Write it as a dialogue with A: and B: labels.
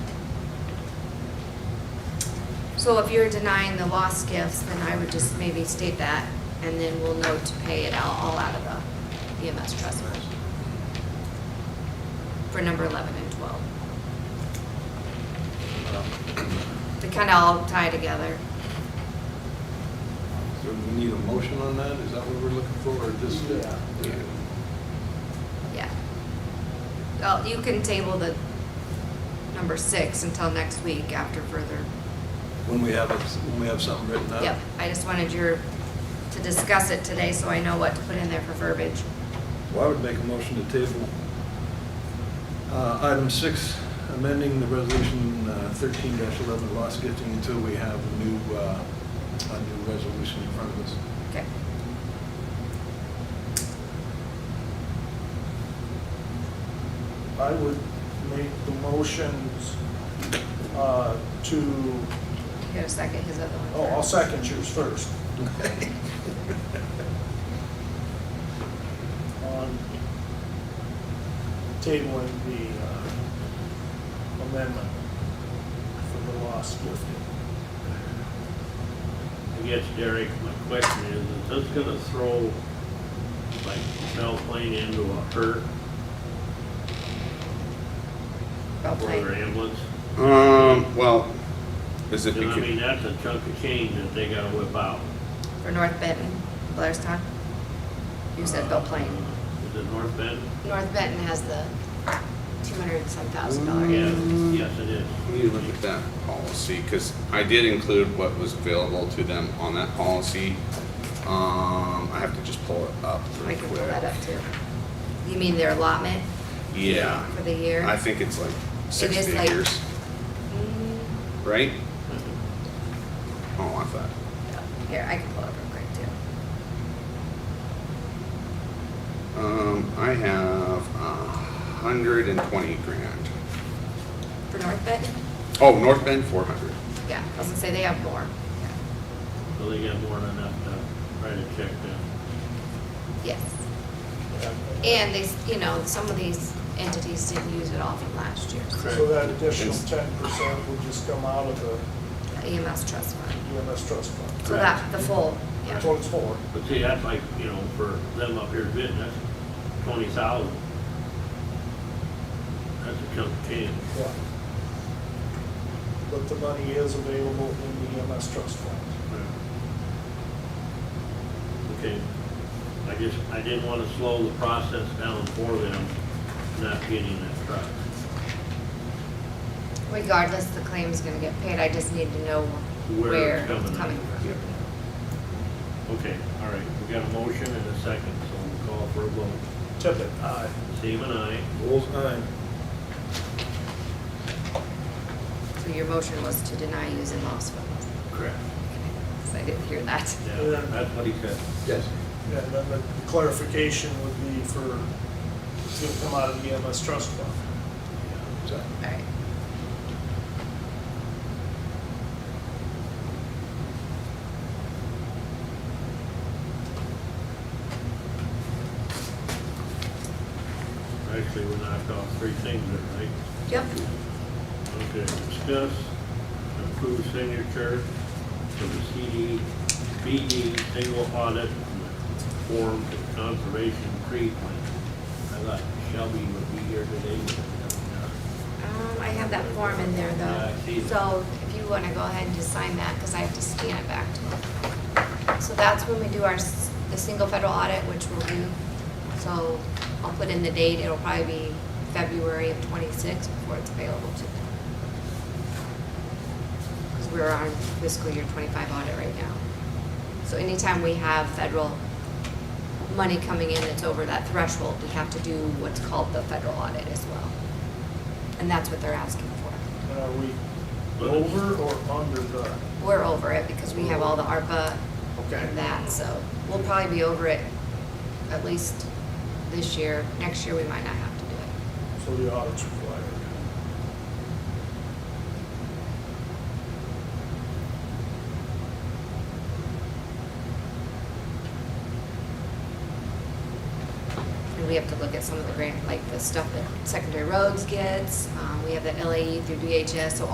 A: So if you're denying the lost gifts, then I would just maybe state that, and then we'll know to pay it out, all out of the EMS trust fund. For number eleven and twelve. They kind of all tie together.
B: So we need a motion on that? Is that what we're looking for, or just? uh,
C: Yeah.
A: Yeah. Well, you can table the number six until next week after further.
B: When we have, it- when we have something written out?
A: Yep, I just wanted your, to discuss it today so I know what to put in there for verbiage.
B: Well, I would make a motion to table. Uh, Item six, amending the resolution uh, thirteen eleven, loss gifting, until we have a new, uh, a new resolution in front of us.
A: Okay.
C: I would make the motions uh, to,
A: You got a second, his other one.
C: oh, I'll
A: first.
C: second yours first. On tabling the uh, amendment for the lost gifting.
D: I guess, Derek, my question is, is this gonna throw, like, Plane into a hurt
A: Well
D: for their
A: played.
D: ambulance?
E: Um, well, is it
D: And I mean,
E: because,
D: that's a chunk of change that they gotta whip out.
A: For North Benton, Blairstown. You said Bell Plain.
D: Uh, Is it North Bend?
A: North Benton has the two hundred and some thousand dollar.
D: Yeah,
A: gift.
D: yes, it is.
E: let me look at that policy, because I did include what was available to them on that policy. Um, I have to just pull it up
A: I
E: real
A: can pull that
E: quick.
A: up too. You mean their allotment?
E: Yeah,
A: For the year?
E: I think it's like six
A: is like-
E: figures,
A: Mm,
E: right?
A: Mm-hmm.
E: Oh, I thought,
A: yeah. Here, I can pull it up real quick too.
E: um, I have a hundred and twenty grand.
A: For North Benton?
E: Oh, North Bend, four hundred.
A: Yeah, I was gonna say they have more.
D: So they got more than enough to write a check down.
A: Yes. And they, s- you know, some of these entities didn't use it all from last year.
C: So that additional ten percent would just come out of the
A: EMS E trust fund.
C: EMS trust fund.
A: So that, the full,
C: That's
A: yeah.
C: what it's for.
D: But see, that's like, you know, for them up here bidding, that's twenty thousand. That's a chunk of change.
C: Yeah. But the money is available in the EMS trust fund.
D: Okay, I just, I didn't want to slow the process down for them, not getting that truck.
A: Regardless, the claim's gonna get paid. I just need to know
D: Where
A: where
D: it's
A: it's
D: coming
A: coming
D: from.
A: from.
D: Okay, all right, we got a motion and a second, so we'll call for a vote.
C: Tippit, aye.
D: Steve and I,
B: Bull's eye.
A: So your motion was to deny using lost funds.
D: correct.
A: So I didn't hear that.
D: Yeah, that's what he said.
B: Yes.
C: And then the clarification would be for, it's gonna come out of the EMS trust fund.
B: So,
A: All right.
D: Actually, we knocked off three things there, right?
A: Yep.
D: Okay, discuss and approve signature for the CD, BD single audit form for conservation tree plan. I thought Shelby would be here today. but,
A: Um, I have that form in there
D: Yeah, I
A: though.
D: see it.
A: So if you wanna go ahead and just sign that, cause I have to scan it back to them. So that's when we do our, s- the single federal audit, which we'll do. So I'll put in the date, it'll probably be February of twenty-six before it's available to them. Cause we're on fiscal year twenty-five audit right now. So anytime we have federal money coming in that's over that threshold, we have to do what's called the federal audit as well. And that's what they're asking for.
C: And are we over or under the?
A: We're over it because we have all the ARPA and that, so we'll probably be over it at least this year. Next year, we might not have to do it.
C: So the audit's required.
A: And we have to look at some of the grant, like the stuff that secondary roads gets. Um, we have the LAE through DHS, so